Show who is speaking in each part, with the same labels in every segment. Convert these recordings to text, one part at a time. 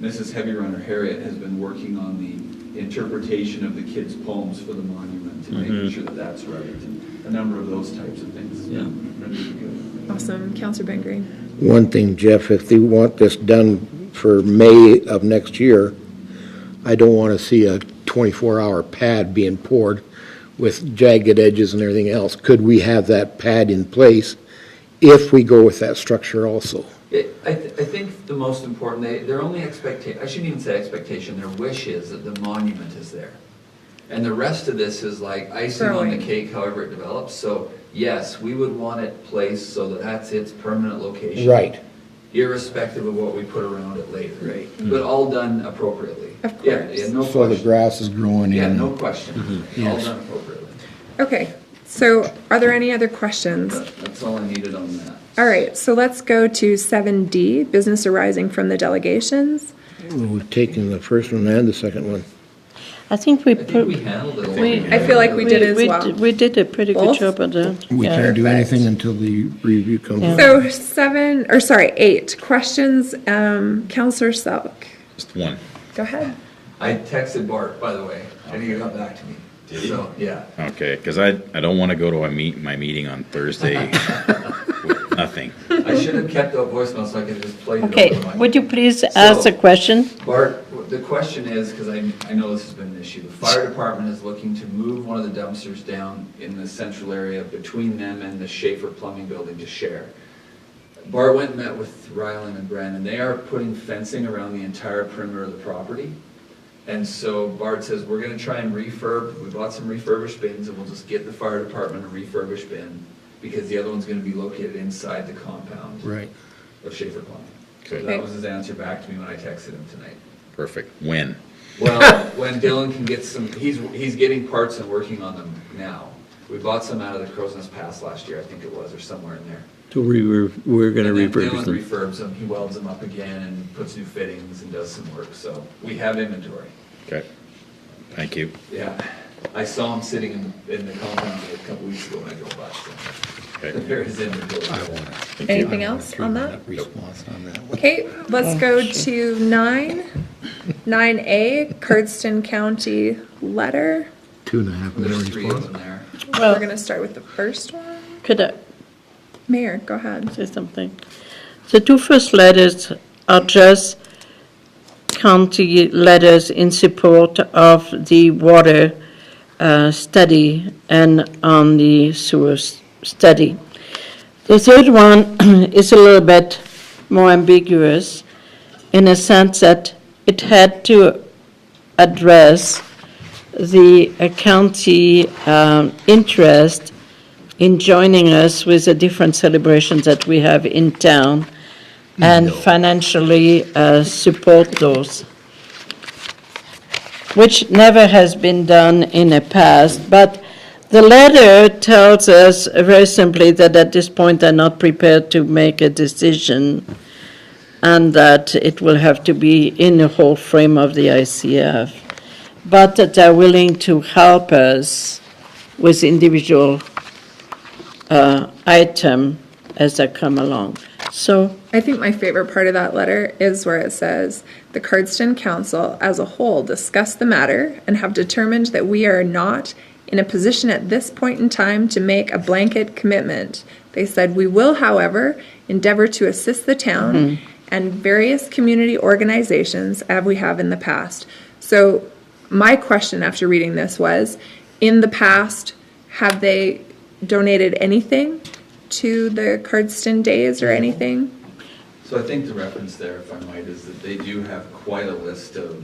Speaker 1: Mrs. Heavy Runner Harriet has been working on the interpretation of the kids' poems for the monument and making
Speaker 2: Mhm.
Speaker 1: sure that that's right, and a number of those types of things.
Speaker 2: Yeah.
Speaker 1: Really good.
Speaker 3: Awesome. Counselor Ben Green.
Speaker 4: One thing, Jeff, if they want this done for May of next year, I don't want to see a 24-hour pad being poured with jagged edges and everything else. Could we have that pad in place if we go with that structure also?
Speaker 5: It, I, th- I think the most important, they, their only expectation, I shouldn't even say expectation, their wish is that the monument is there. And the rest of this is like icing on the
Speaker 3: Growing.
Speaker 5: cake however it develops, so yes, we would want it placed so that that's its permanent location.
Speaker 4: Right.
Speaker 5: Irrespective of what we put around it later.
Speaker 1: Right.
Speaker 5: But all done appropriately.
Speaker 3: Of
Speaker 5: Yeah,
Speaker 3: course.
Speaker 5: yeah, no
Speaker 4: So the
Speaker 5: question.
Speaker 4: grass is growing in.
Speaker 5: Yeah, no question. All
Speaker 4: Yes.
Speaker 5: done appropriately.
Speaker 3: Okay, so are there any other questions?
Speaker 5: That- That's all I needed on that.
Speaker 3: All right, so let's go to seven D, business arising from the delegations.
Speaker 4: We've taken the first one and the second one.
Speaker 6: I think we
Speaker 5: I think
Speaker 6: put.
Speaker 5: we handled it. all.
Speaker 6: we-
Speaker 3: I feel like we did as
Speaker 6: we
Speaker 3: well.
Speaker 6: d- We did a pretty good
Speaker 3: Both?
Speaker 6: job of that.
Speaker 4: We
Speaker 6: yeah.
Speaker 4: can't do anything until the review comes.
Speaker 6: Yeah.
Speaker 3: So seven, or sorry, eight, questions, um, Counselor Selk,
Speaker 2: Just one.
Speaker 3: go ahead.
Speaker 5: I texted Bart, by the way, and he got back to me. Did he? So, yeah.
Speaker 2: Okay, because I, I don't want to go to a meet, my meeting on Thursday with nothing.
Speaker 5: I should have kept that voicemail so I could just play it
Speaker 6: Okay,
Speaker 5: over my.
Speaker 6: would you please ask
Speaker 5: So-
Speaker 6: the question?
Speaker 5: Bart, the question is, because I, I know this has been an issue, the fire department is looking to move one of the dumpsters down in the central area between them and the Schaefer Plumbing Building to share. Bart went and met with Ryland and Brandon, they are putting fencing around the entire perimeter of the property. And so Bart says, we're gonna try and refurb, we bought some refurbished bins and we'll just get the fire department a refurbished bin because the other one's gonna be located inside the compound
Speaker 4: Right.
Speaker 5: of Schaefer Plumbing. So
Speaker 2: Okay.
Speaker 5: that was his answer back to me when I texted him tonight.
Speaker 2: Perfect. When?
Speaker 5: Well, when Dylan can get some, he's, he's getting parts and working on them now. We bought some out of the Crow's Nest Pass last year, I think it was, or somewhere in there.
Speaker 7: So we were, we're gonna
Speaker 5: And then
Speaker 7: repurpose
Speaker 5: Dylan
Speaker 7: them.
Speaker 5: refurbs them, he welds them up again and puts new fittings and does some work, so we have inventory.
Speaker 2: Okay. Thank you.
Speaker 5: Yeah, I saw him sitting in, in the compound a couple weeks ago when I drove by, so
Speaker 2: Okay.
Speaker 5: there is inventory.
Speaker 3: Anything else on that?
Speaker 4: Response on that one.
Speaker 3: Okay, let's go to nine, nine A, Cardston County letter.
Speaker 4: Two and a half minute
Speaker 5: There's three of
Speaker 4: response.
Speaker 5: them there.
Speaker 3: We're
Speaker 6: Well,
Speaker 3: gonna start with the first one.
Speaker 6: could I
Speaker 3: Mayor, go ahead.
Speaker 6: say something? The two first letters are just county letters in support of the water uh, study and on the sewer s- study. The third one is a little bit more ambiguous in a sense that it had to address the uh, county um, interest in joining us with the different celebrations that we have in town and financially uh, support those, which never has been done in the past. But the letter tells us very simply that at this point, they're not prepared to make a decision and that it will have to be in the whole frame of the ICF, but that they're willing to help us with individual uh, item as they come along. So
Speaker 3: I think my favorite part of that letter is where it says, "The Cardston Council as a whole discussed the matter and have determined that we are not in a position at this point in time to make a blanket commitment. They said, "We will, however, endeavor to assist the town and various community organizations as we have in the past." So, my question after reading this was, in the past, have they donated anything to the Cardston Days or anything?
Speaker 1: So I think the reference there, if I might, is that they do have quite a list of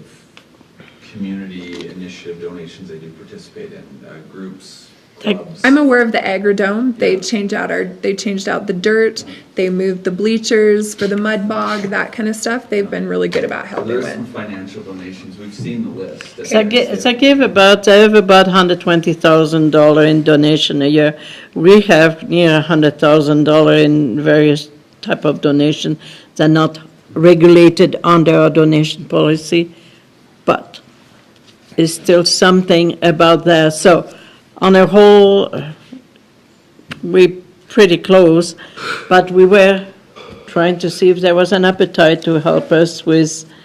Speaker 1: community initiative donations they do participate in, uh, groups, clubs.
Speaker 3: I'm aware of the Agrodome. They changed out our they changed out the dirt. They moved the bleachers for the mud bog, that kind of stuff. They've been really good about
Speaker 1: So
Speaker 3: helping
Speaker 1: There's some
Speaker 3: with.
Speaker 1: financial donations, we've seen the list.
Speaker 6: So I gi- so I give about, I have about hundred twenty thousand dollar in donation a year. We have near hundred thousand dollar in various type of donation. They're not regulated under our donation policy, but it's still something about that. So on a whole, uh, we pretty close, but we were trying to see if there was an appetite to help us with